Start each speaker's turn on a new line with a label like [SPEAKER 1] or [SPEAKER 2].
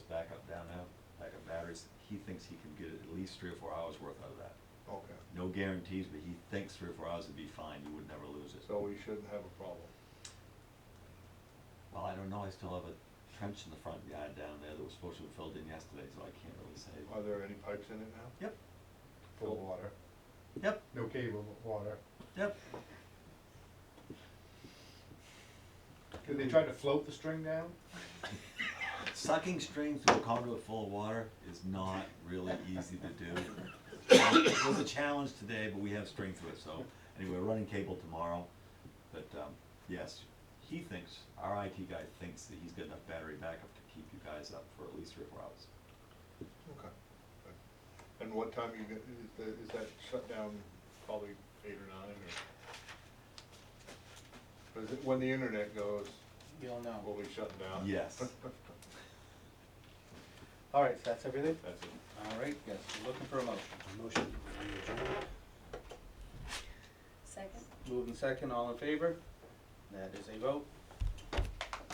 [SPEAKER 1] he thinks he can get at least three or four hours worth out of that.
[SPEAKER 2] Okay,
[SPEAKER 1] No guarantees, but he thinks three or four hours would be fine, you would never lose it.
[SPEAKER 2] so we shouldn't have a problem.
[SPEAKER 1] Well, I don't know, I still have a trench in the front yard down there that was supposed to be filled in yesterday, so I can't really say.
[SPEAKER 2] Are there any pipes in it now?
[SPEAKER 1] Yep,
[SPEAKER 2] Full of water.
[SPEAKER 1] yep,
[SPEAKER 3] No cable, but water.
[SPEAKER 1] yep.
[SPEAKER 3] Did they try to float the string down?
[SPEAKER 1] Sucking string through a conduit full of water is not really easy to do. It was a challenge today, but we have string through it, so, anyway, we're running cable tomorrow. But, um, yes, he thinks, our IT guy thinks that he's got enough battery backup to keep you guys up for at least three or four hours.
[SPEAKER 2] Okay. good. And what time you get, is the, is that shut down probably eight or nine or? Or is it when the internet goes,
[SPEAKER 4] You'll
[SPEAKER 2] will
[SPEAKER 4] know.
[SPEAKER 2] we shut down?
[SPEAKER 1] Yes.
[SPEAKER 4] All right, so that's everything?
[SPEAKER 2] That's it.
[SPEAKER 4] All right, yes, we're looking for a motion.
[SPEAKER 5] Motion.
[SPEAKER 6] Second?
[SPEAKER 4] Moving second, all in favor? That is a vote.